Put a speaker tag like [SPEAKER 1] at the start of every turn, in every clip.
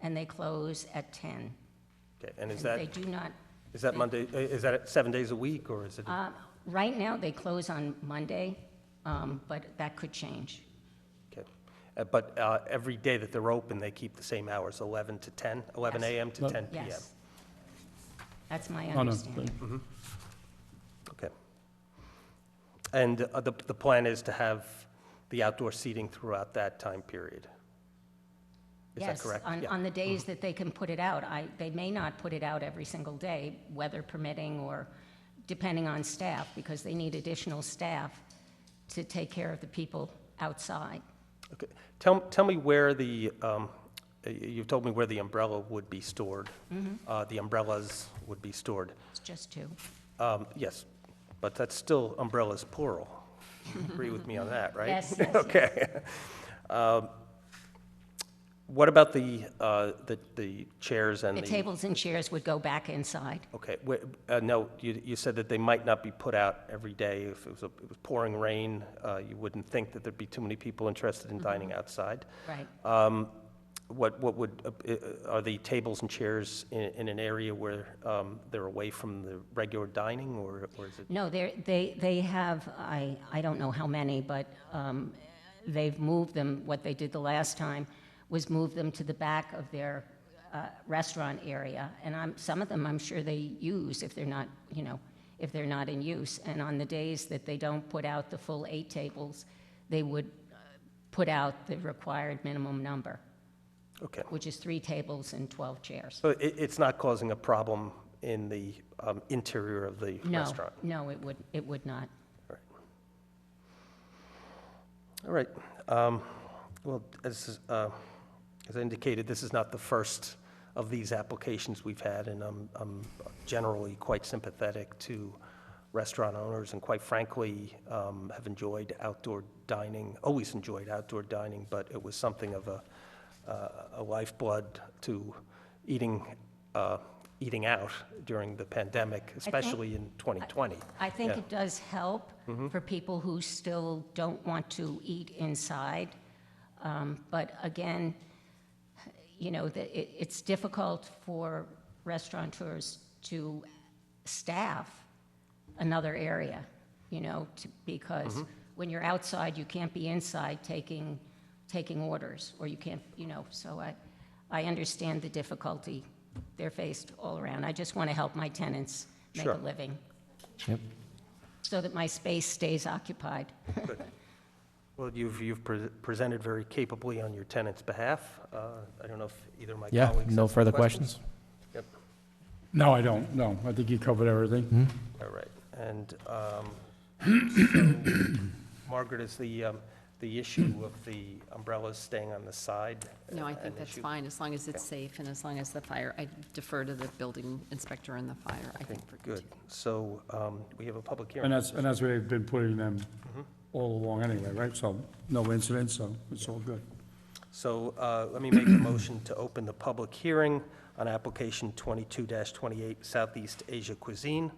[SPEAKER 1] and they close at 10.
[SPEAKER 2] Okay, and is
[SPEAKER 1] They
[SPEAKER 2] that,
[SPEAKER 1] do not,
[SPEAKER 2] is that
[SPEAKER 1] they-
[SPEAKER 2] Monday, i- is that seven days a week, or is it?
[SPEAKER 1] uh, right now, they close on Monday, um, but that could change.
[SPEAKER 2] okay. Uh, But uh, every day that they're open, they keep the same hours, 11 to 10, 11
[SPEAKER 1] Yes.
[SPEAKER 2] a.m. to
[SPEAKER 3] No.
[SPEAKER 2] 10 p.m.?
[SPEAKER 1] Yes. That's my
[SPEAKER 3] Oh, no,
[SPEAKER 1] understanding.
[SPEAKER 2] Okay. And uh, the, the plan is to have the outdoor seating throughout that time period? Is that correct?
[SPEAKER 1] Yes, on,
[SPEAKER 2] Yeah. Mm-hmm.
[SPEAKER 1] on the days that they can put it out. I, they may not put it out every single day, weather permitting or depending on staff, because they need additional staff to take care of the people outside.
[SPEAKER 2] Okay. Tell, tell me where the, um, y- you've told me where the umbrella would be stored.
[SPEAKER 1] Mm-hmm.
[SPEAKER 2] Uh, The umbrellas would be stored.
[SPEAKER 1] It's just two.
[SPEAKER 2] Um, Yes, but that's still umbrellas plural. You Agree with me on that, right?
[SPEAKER 1] Yes, yes, yes.
[SPEAKER 2] Okay. Um, What about the, uh, the the chairs and
[SPEAKER 1] The
[SPEAKER 2] the?
[SPEAKER 1] tables and chairs would go back inside.
[SPEAKER 2] Okay, wait, uh, no, you, you said that they might not be put out every day. If it was, a- it was pouring rain, uh, you wouldn't think that there'd be too many people interested
[SPEAKER 1] Mm-hmm.
[SPEAKER 2] in dining outside.
[SPEAKER 1] Right.
[SPEAKER 2] Um, What, what would, uh, uh, are the tables and chairs in, in an area where um, they're away from the regular dining, or, or is it?
[SPEAKER 1] No, they're, they, they have, I, I don't know how many, but um, they've moved them, what they did the last time was move them to the back of their uh, restaurant area. And I'm, some of them, I'm sure they use if they're not, you know, if they're not in use. And on the days that they don't put out the full eight tables, they would uh, put out the required minimum number,
[SPEAKER 2] Okay,
[SPEAKER 1] which is three tables and 12 chairs.
[SPEAKER 2] so it, it's not causing a problem in the um, interior of the
[SPEAKER 1] No,
[SPEAKER 2] restaurant?
[SPEAKER 1] no, it would, it would not.
[SPEAKER 2] All right. um, Well, as, is, uh, as I indicated, this is not the first of these applications we've had, and I'm, I'm generally quite sympathetic to restaurant owners, and quite frankly, um, have enjoyed outdoor dining, always enjoyed outdoor dining, but it was something of a, uh, a lifeblood to eating, uh, eating out during the pandemic, especially in 2020.
[SPEAKER 1] I think
[SPEAKER 2] Yeah. Mm-hmm.
[SPEAKER 1] it does help for people who still don't want to eat inside. Um, But again, you know, the- it- it's difficult for restaurateurs to staff another area, you know, to- because
[SPEAKER 2] Mm-hmm.
[SPEAKER 1] when you're outside, you can't be inside taking, taking orders, or you can't, you know, so I, I understand the difficulty they're faced all around. I just want to help my tenants make a
[SPEAKER 2] Sure.
[SPEAKER 1] living
[SPEAKER 3] Yep.
[SPEAKER 1] so that my space stays occupied.
[SPEAKER 2] Well, you've, you've pre- presented very capably on your tenant's behalf. Uh, I don't know if either of my
[SPEAKER 3] Yeah,
[SPEAKER 2] colleagues.
[SPEAKER 3] no
[SPEAKER 2] have
[SPEAKER 3] further questions?
[SPEAKER 4] No, I don't, no. I think you covered everything.
[SPEAKER 2] Yep, All right, and um, so, Margaret, is the, um, the issue of the umbrellas staying on the side?
[SPEAKER 5] No, I
[SPEAKER 2] an
[SPEAKER 5] think that's
[SPEAKER 2] issue?
[SPEAKER 5] fine, as long as it's safe and as long as the fire, I defer to the building inspector and the fire, I think. we're
[SPEAKER 2] Good, so um, we have a public hearing.
[SPEAKER 4] And uh, that's, and that's where they've been putting them all along anyway, right? So no incidents, so it's all good.
[SPEAKER 2] So uh, let me make a motion to open the public hearing on application 22-28 Southeast Asia Cuisine.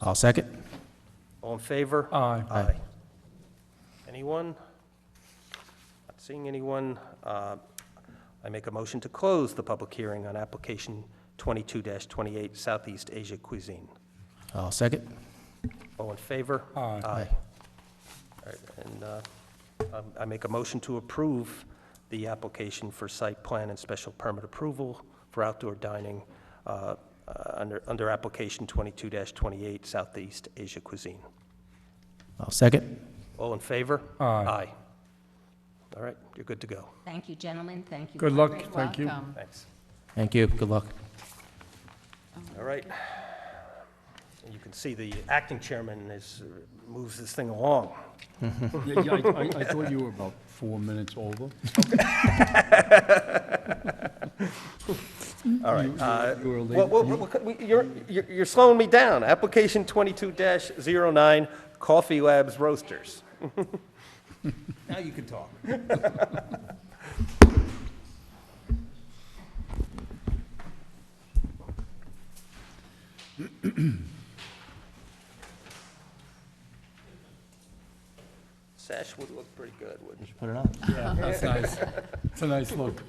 [SPEAKER 3] I'll second.
[SPEAKER 2] All in favor?
[SPEAKER 4] Aye.
[SPEAKER 3] Aye.
[SPEAKER 2] Anyone? Not seeing anyone. Uh, I make a motion to close the public hearing on application 22-28 Southeast Asia Cuisine.
[SPEAKER 3] I'll second.
[SPEAKER 2] All in favor?
[SPEAKER 4] Aye.
[SPEAKER 2] Aye. All right, And uh, um, I make a motion to approve the application for site plan and special permit approval for outdoor dining uh, uh, under, under application 22-28 Southeast Asia Cuisine.
[SPEAKER 3] I'll second.
[SPEAKER 2] All in favor?
[SPEAKER 4] Aye.
[SPEAKER 2] All right, you're good to go.
[SPEAKER 1] Thank you, gentlemen, thank you.
[SPEAKER 4] Good luck,
[SPEAKER 5] great.
[SPEAKER 4] thank you.
[SPEAKER 5] Welcome.
[SPEAKER 2] Thanks.
[SPEAKER 3] Thank you. Good luck.
[SPEAKER 2] All right. And you can see the acting chairman is, moves this thing along.
[SPEAKER 4] Yeah, yeah, I, I- I thought you were about four minutes over.
[SPEAKER 2] All right.
[SPEAKER 4] You- you-
[SPEAKER 2] uh,
[SPEAKER 4] you were late.
[SPEAKER 2] well, well, well, we- You're, you're you're slowing me down. Application 22-09, Coffee Labs Roasters. Now you can talk. Sash would look pretty good, wouldn't it?
[SPEAKER 3] Put it on.
[SPEAKER 4] That's nice. It's a nice look.